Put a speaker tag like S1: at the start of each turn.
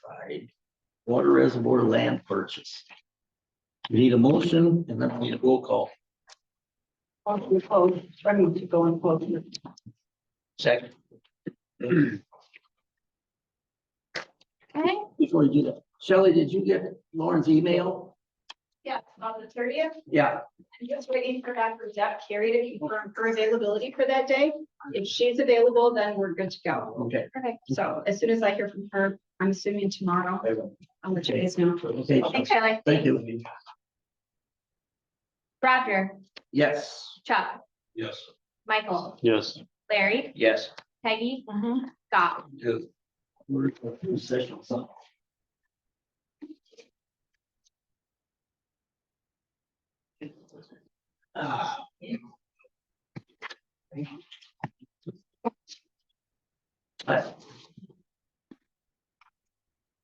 S1: right? Water reservoir land purchase. We Need a motion and then we need a roll call.
S2: Motion to close, ready to go in close.
S1: Second.
S3: Okay,
S1: Before you do that, Shelley, did you get Lauren's email?
S3: yeah, on the thirtieth,
S1: Yeah,
S3: I'm just waiting for Dr. Deb Carey to confirm her availability for that day. If she's available, then we're good to go.
S1: okay.
S3: Okay. So as soon as I hear from her, I'm assuming tomorrow, I'll let you guys know.
S1: Okay,
S4: Thanks, Charlie.
S1: thank you.
S4: Roger,
S1: Yes.
S4: Chuck,
S5: Yes.
S4: Michael,
S5: Yes.
S4: Larry,
S1: Yes.
S4: Peggy, Scott.
S1: We're in closed session, so. Ah. All right,